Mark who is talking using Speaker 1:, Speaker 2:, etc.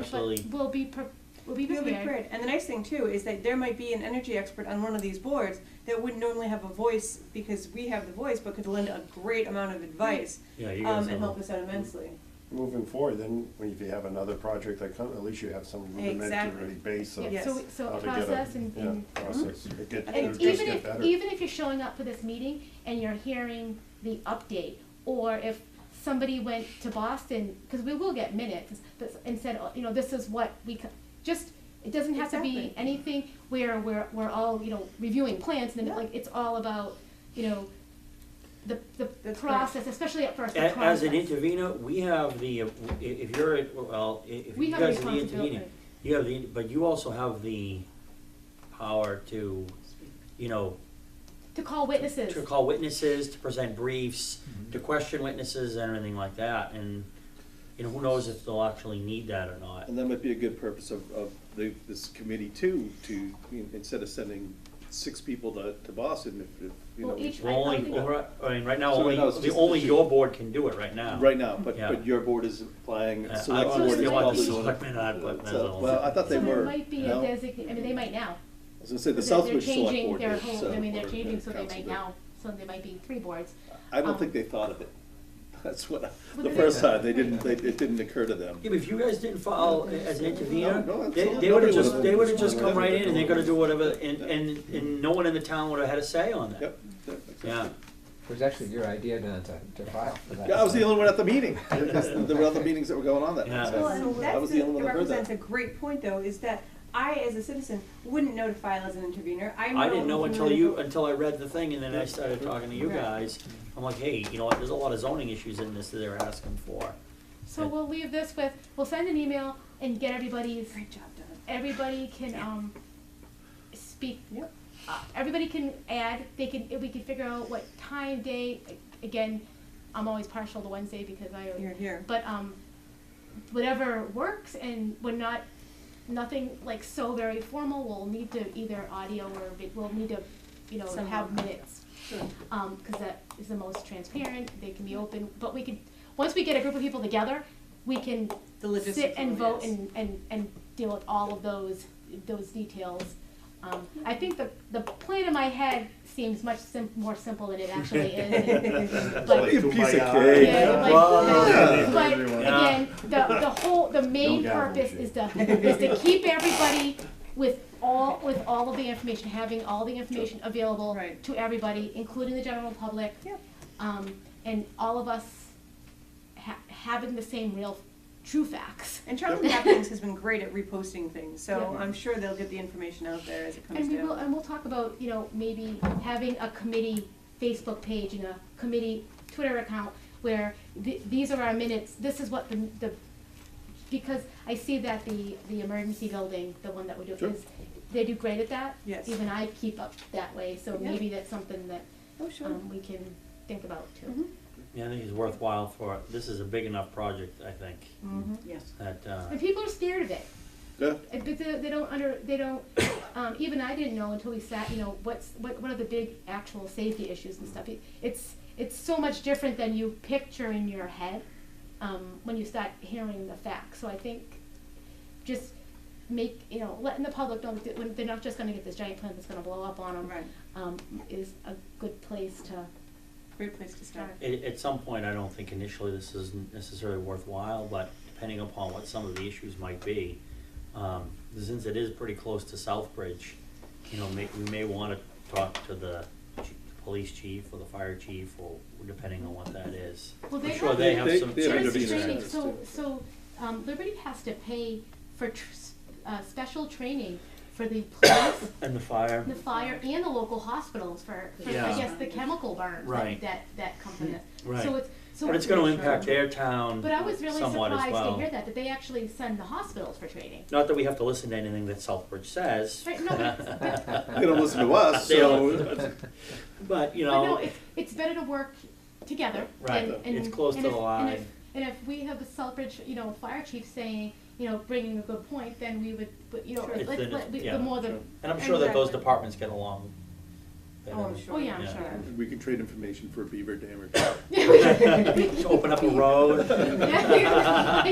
Speaker 1: Absolutely.
Speaker 2: But we'll be, pre- we'll be
Speaker 3: You'll be
Speaker 2: prepared.
Speaker 3: prepared. And the nice thing too is that there might be an energy expert on one of these boards that wouldn't normally have a voice because we have the voice, but could lend a great amount of advice
Speaker 1: Yeah, you guys
Speaker 3: um,
Speaker 1: have
Speaker 3: and help
Speaker 1: a-
Speaker 3: us out immensely.
Speaker 4: moving forward, then when- if you have another project that comes, at least you have some rudimentary
Speaker 3: Exactly.
Speaker 4: base of
Speaker 2: Yeah,
Speaker 3: Yes.
Speaker 2: so, we- so
Speaker 4: how to get
Speaker 2: process
Speaker 4: a,
Speaker 2: and,
Speaker 4: yeah,
Speaker 2: and,
Speaker 4: process. It get-
Speaker 3: And
Speaker 4: it'll
Speaker 2: and
Speaker 4: just
Speaker 2: even
Speaker 4: get
Speaker 2: if,
Speaker 4: better.
Speaker 2: even if you're showing up for this meeting and you're hearing the update, or if somebody went to Boston, because we will get minutes, but, and said, oh, you know, this is what we, co- just, it doesn't have to be
Speaker 3: Exactly.
Speaker 2: anything where we're, we're all, you know, reviewing plans, and then,
Speaker 3: Yeah.
Speaker 2: like, it's all about, you know, the, the
Speaker 3: That's right.
Speaker 2: process, especially at first, the
Speaker 1: A- As an
Speaker 2: process.
Speaker 1: intervener, we have the, uh, i- if you're, at- well, i- if
Speaker 2: We
Speaker 1: you
Speaker 2: have a
Speaker 1: guys are the
Speaker 2: responsibility.
Speaker 1: intervener, you have the, but you also have the power to, you know,
Speaker 2: To call witnesses.
Speaker 1: to call witnesses, to present briefs,
Speaker 5: Mm-hmm.
Speaker 1: to question witnesses and everything like that, and, you know, who knows if they'll actually need that or not.
Speaker 5: And that might be a good purpose of, of the, this committee too, to, you know, instead of sending six people to, to Boston, if, if, you
Speaker 2: Well,
Speaker 5: know,
Speaker 2: each-
Speaker 1: We're
Speaker 2: I- I
Speaker 1: only,
Speaker 2: think-
Speaker 1: we're- I mean, right now,
Speaker 5: So
Speaker 1: only,
Speaker 5: no, it's
Speaker 1: the-
Speaker 5: just-
Speaker 1: only your board can do it right now.
Speaker 5: right now, but,
Speaker 1: Yeah.
Speaker 5: but your board is applying,
Speaker 1: Uh, I
Speaker 5: select
Speaker 1: don't
Speaker 5: board is
Speaker 1: understand why the
Speaker 5: probably.
Speaker 1: selectmen aren't putting that
Speaker 5: So,
Speaker 1: on.
Speaker 5: Well, I thought they
Speaker 2: So there
Speaker 5: were,
Speaker 2: might be
Speaker 5: you
Speaker 2: a
Speaker 5: know?
Speaker 2: designate, I mean, they might now.
Speaker 5: I was gonna say, the
Speaker 2: They're- they're
Speaker 5: Southbridge Select
Speaker 2: changing
Speaker 5: Board
Speaker 2: their
Speaker 5: is,
Speaker 2: whole-
Speaker 5: uh,
Speaker 2: I mean, they're
Speaker 5: or, uh,
Speaker 2: changing, so they
Speaker 5: council
Speaker 2: might
Speaker 5: did.
Speaker 2: now, so there might be three boards.
Speaker 5: I don't
Speaker 2: um,
Speaker 5: think they thought of it. That's what, I-
Speaker 2: Well,
Speaker 5: the
Speaker 2: they-
Speaker 5: first time, they didn't, they, it didn't occur to them.
Speaker 1: Yeah, but if you guys didn't file as an intervener,
Speaker 5: No, no, that's
Speaker 1: they,
Speaker 5: not-
Speaker 1: they would've
Speaker 5: nobody
Speaker 1: just,
Speaker 5: would've-
Speaker 1: they would've just come
Speaker 5: whatever
Speaker 1: right in and they're gonna do whatever, and,
Speaker 5: Yeah.
Speaker 1: and, and no one in the town would've had a say on that.
Speaker 5: Yep. yep, exactly.
Speaker 1: Yeah,
Speaker 6: It was actually your idea, Don, to, to file for that.
Speaker 5: Yeah, I was the only one at the meeting. That's- There were other meetings that were going on that night.
Speaker 1: Yeah.
Speaker 5: so
Speaker 3: Well,
Speaker 1: Well,
Speaker 3: and
Speaker 5: I was the only one that heard
Speaker 3: represents
Speaker 5: that.
Speaker 3: a great point though, is that I, as a citizen, wouldn't know to file as an intervener. I
Speaker 1: I didn't know
Speaker 3: who's
Speaker 1: until
Speaker 3: really-
Speaker 1: you, until I read the thing and then I started talking to you
Speaker 3: Right.
Speaker 1: guys. I'm like, hey, you know what, there's a lot of zoning issues in this that they're asking for.
Speaker 2: So we'll leave this with, we'll send an email and get everybody's,
Speaker 3: Great job, Don.
Speaker 2: everybody can, um, speak.
Speaker 3: Yep.
Speaker 2: Uh, everybody can add, they can, we can figure out what time, day, again, I'm always partial to Wednesday because I,
Speaker 3: You're here.
Speaker 2: but um, whatever works and we're not nothing like so very formal we'll need to either audio or vi- we'll need to you know
Speaker 3: Some
Speaker 2: have
Speaker 3: work.
Speaker 2: minutes
Speaker 3: Sure.
Speaker 2: um, because that is the most transparent they can be open but we could once we get a group of people together we can
Speaker 3: The logistics.
Speaker 2: sit and
Speaker 3: of it
Speaker 2: vote
Speaker 3: is.
Speaker 2: and, and, and deal with all of those those details um, I think the the plan in my head seems much sim- more simple than it actually is
Speaker 5: Like a piece of cake.
Speaker 2: Yeah, like,
Speaker 1: Well,
Speaker 2: yeah,
Speaker 4: yeah.
Speaker 2: but
Speaker 4: Everyone.
Speaker 2: again, the, the whole, the main
Speaker 4: Don't gavel
Speaker 2: purpose
Speaker 4: shit.
Speaker 2: is to, is to keep everybody with all, with all of the information, having all the information available
Speaker 3: Right.
Speaker 2: to everybody, including the general public.
Speaker 3: Yep.
Speaker 2: Um, and all of us ha- having the same real, true facts.
Speaker 3: And Charlie Hopkins has been great at reposting things, so
Speaker 2: Yeah.
Speaker 3: I'm sure they'll get the information out there as it comes
Speaker 2: And we will,
Speaker 3: down.
Speaker 2: and we'll talk about, you know, maybe having a committee Facebook page and a committee Twitter account where th- these are our minutes, this is what the, the, because I see that the, the emergency building, the one that we do,
Speaker 5: Sure.
Speaker 2: is, they do great at that.
Speaker 3: Yes.
Speaker 2: Even I keep up that way, so
Speaker 3: Yeah.
Speaker 2: maybe that's something that,
Speaker 3: Oh, sure.
Speaker 2: um, we can think about too.
Speaker 3: Mhm.
Speaker 1: Yeah, I think it's worthwhile for, this is a big enough project, I think,
Speaker 3: Yes.
Speaker 1: that, uh,
Speaker 2: And people are scared of it.
Speaker 5: Yeah.
Speaker 2: Uh, But they, they don't under, they don't, um, even I didn't know until we sat, you know, what's, what, what are the big actual safety issues and stuff. It- It's, it's so much different than you picture in your head, um, when you start hearing the facts. So I think just make, you know, letting the public know that when they're not just gonna get this giant plan that's gonna blow up on them,
Speaker 3: Right.
Speaker 2: um, is a good place to
Speaker 3: Great place to start.
Speaker 2: start.
Speaker 1: at, at some point, I don't think initially this is necessarily worthwhile, but depending upon what some of the issues might be, um, since it is pretty close to Southbridge, you know, may, we may wanna talk to the chi- police chief or the fire chief, or depending on what that is.
Speaker 2: Well,
Speaker 1: I'm
Speaker 2: they
Speaker 1: sure
Speaker 2: have-
Speaker 1: they have
Speaker 5: They-
Speaker 1: some.
Speaker 5: they have
Speaker 1: sort of
Speaker 2: There's
Speaker 5: intervener
Speaker 2: training,
Speaker 5: centers,
Speaker 2: so,
Speaker 5: too.
Speaker 2: so, um, Liberty has to pay for tr- s- uh, special training for the police,
Speaker 1: And the fire,
Speaker 2: the fire, and the local hospitals for, for, I
Speaker 1: Yeah.
Speaker 2: guess, the chemical burns
Speaker 1: Right. Hmm.
Speaker 2: that, that, that come from this.
Speaker 1: Right.
Speaker 2: So it's, so.
Speaker 1: but it's gonna impact their town
Speaker 2: But I was really
Speaker 1: somewhat as
Speaker 2: surprised to
Speaker 1: well.
Speaker 2: hear that, that they actually send the hospitals for training.
Speaker 1: Not that we have to listen to anything that Southbridge says.
Speaker 2: Right, no, but, but,
Speaker 5: They don't listen to us,
Speaker 1: They don't
Speaker 5: so.
Speaker 1: But, you
Speaker 2: but no,
Speaker 1: know,
Speaker 2: it's, it's better to work together
Speaker 1: Right.
Speaker 2: and, and.
Speaker 1: It's close
Speaker 2: and
Speaker 1: to
Speaker 2: if-
Speaker 1: the
Speaker 2: and if-
Speaker 1: line.
Speaker 2: And if we have a Southbridge, you know, fire chief saying, you know, bringing a good point, then we would, but, you know,
Speaker 1: Sure. It's
Speaker 2: let,
Speaker 1: then
Speaker 2: let,
Speaker 1: it's-
Speaker 2: we-
Speaker 1: yeah,
Speaker 2: the more the,
Speaker 5: sure.
Speaker 1: and I'm sure that those
Speaker 3: Exactly.
Speaker 1: departments get along. better.
Speaker 3: Oh, I'm sure.
Speaker 2: oh yeah, I'm
Speaker 1: Yeah.
Speaker 2: sure.
Speaker 5: We can trade information for beaver dam
Speaker 1: To open up a road.
Speaker 2: Yeah.